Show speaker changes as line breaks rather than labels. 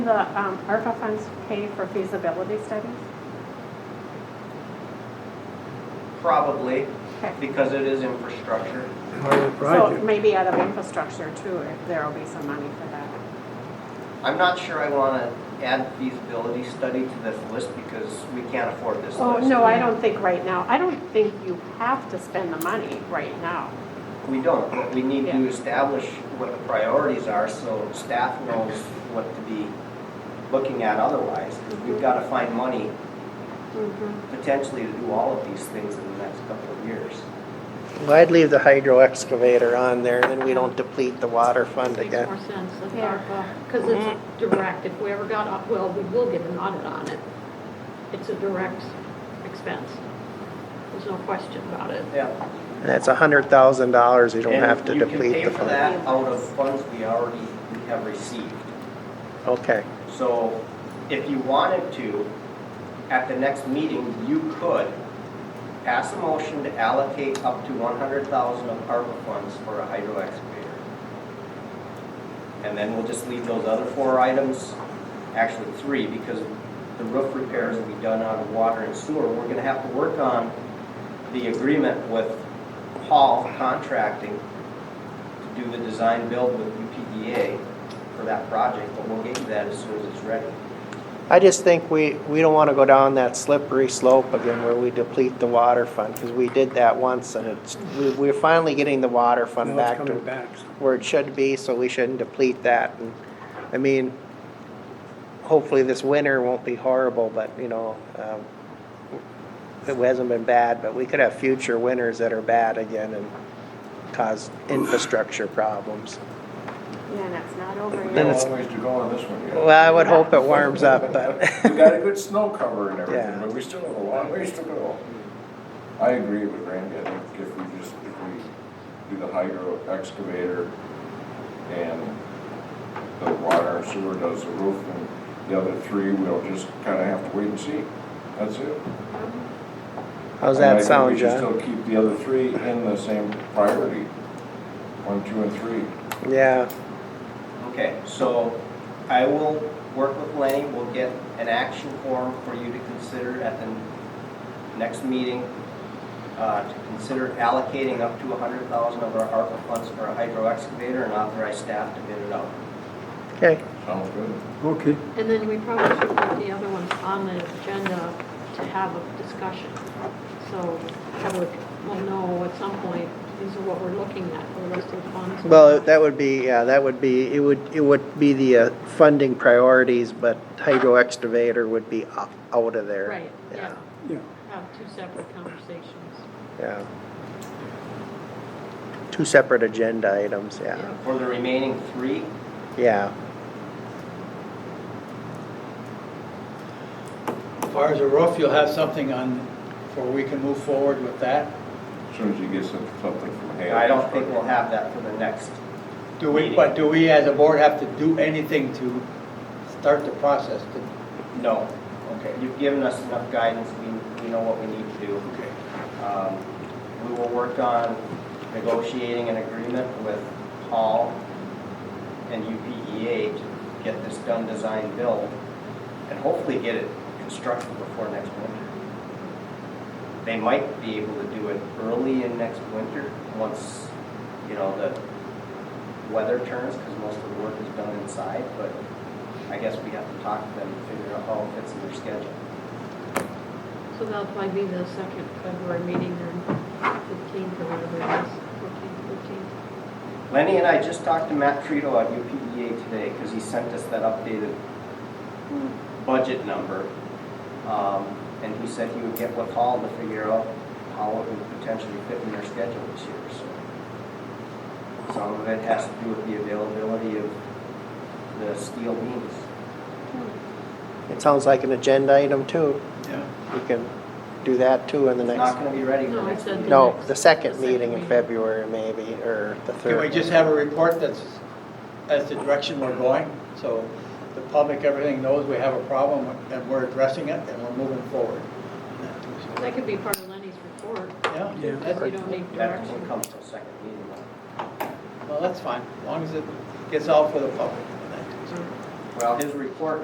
The um, ARPA funds pay for feasibility studies?
Probably,
Okay.
because it is infrastructure.
part of the
So
project.
maybe out of infrastructure too, if there'll be some money for that.
I'm not sure I want to add feasibility study to this list because we can't afford this list.
Oh, no, I don't think right now, I don't think you have to spend the money right now.
We don't. What we need to
Yeah.
establish what the priorities are so staff knows what to be looking at otherwise. Because we've
Mm-hmm.
got to find money potentially to do all of these things in the next couple of years.
Well, I'd leave the hydro excavator on there, then we don't deplete the water fund
Makes
again.
more sense with
Yeah.
ARPA, because it's
Mm-hmm.
direct, if we ever got, au- well, we will get an audit on it. It's a direct expense. There's no question about it.
Yeah.
And that's a hundred thousand dollars, you don't have to deplete
You can pay
the
for
fund.
that out of funds we already have received.
Okay,
So if you wanted to, at the next meeting, you could pass a motion to allocate up to one hundred thousand of ARPA funds for a hydro excavator. And then we'll just leave those other four items, actually three, because the roof repairs will be done out of water and sewer. We're gonna have to work on the agreement with Hall Contracting to do the design build with UPDA for that project, but we'll get you that as soon as it's ready.
I just think we, we don't wanna go down that slippery slope again where we deplete the water fund, cause we did that once and it's, we, we're finally getting the water fund
Now it's
back
coming
to
back. so
where it should be, so we shouldn't deplete that, and, I mean, hopefully this winter won't be horrible, but, you know, um, it hasn't been bad, but we could have future winters that are bad again and cause infrastructure problems.
Yeah, and it's not over
Then
yet.
it's-
Got a long ways to go on this one yet.
Well, I would hope it warms up,
We
but,
got a good snow cover and everything,
Yeah.
but we still have a long ways to go. I agree with Randy, I think if we just, if we do the hydro excavator and the water and sewer does the roof and the other three, we'll just kinda have to wait and see. That's it.
how's
And I
that
think
sound,
We
John?
should still keep the other three in the same priority, one, two, and three.
Yeah,
Okay, so I will work with Lenny, we'll get an action form for you to consider at the next meeting, uh, to consider allocating up to a hundred thousand of our ARPA funds for a hydro excavator and authorize staff to bid it out.
okay,
Sounds good.
Okay,
And then we probably should put the other ones on the agenda to have a discussion. So public will know at some point, these are what we're looking at, for the rest of the funds.
well, that would be, yeah, that would be, it would, it would be the uh, funding priorities, but hydro excavator would be o- out of there.
Right, yeah,
yeah.
have two separate conversations.
Yeah. Two separate agenda items, yeah,
Yeah.
For the remaining three,
yeah.
As far as the roof, you'll have something on, for we can move forward with that?
As soon as you get some- something from Haley.
I don't think we'll have that for the next.
Do we, but do we as a board have to do anything to start the process? to-
No. Okay. You've given us enough guidance, we, we know what we need to do.
Okay.
Um, We will work on negotiating an agreement with Hall and UPEA to get this done, design, build, and hopefully get it constructed before next winter. They might be able to do it early in next winter, once, you know, the weather turns, because most of the work is done inside, but I guess we have to talk to them and figure out how it fits in their schedule.
So that'll probably be the second February meeting or fifteenth or whatever it is, fourteenth, fifteenth.
Lenny and I just talked to Matt Trito at UPEA today, because he sent us that updated budget number. Um, And he said he would get with Hall to figure out how it would potentially fit in their schedule this year, so. Some of it has to do with the availability of the steel beams.
It sounds like an agenda item too.
Yeah.
We can do that too in the
It's not
next,
gonna be ready for
No,
next
it's a-
meeting.
no,
next-
the second
the second
meeting in
meeting.
February maybe, or the third.
Can we just have a report that's, that's the direction we're going? So the public, everything knows we have a problem and we're addressing it and we're moving forward.
That could be part of Lenny's report,
Yeah?
Yeah.
because you don't need
That
direction.
won't come till second meeting. though.
Well, that's fine, as long as it gets out for the public.
Well, his report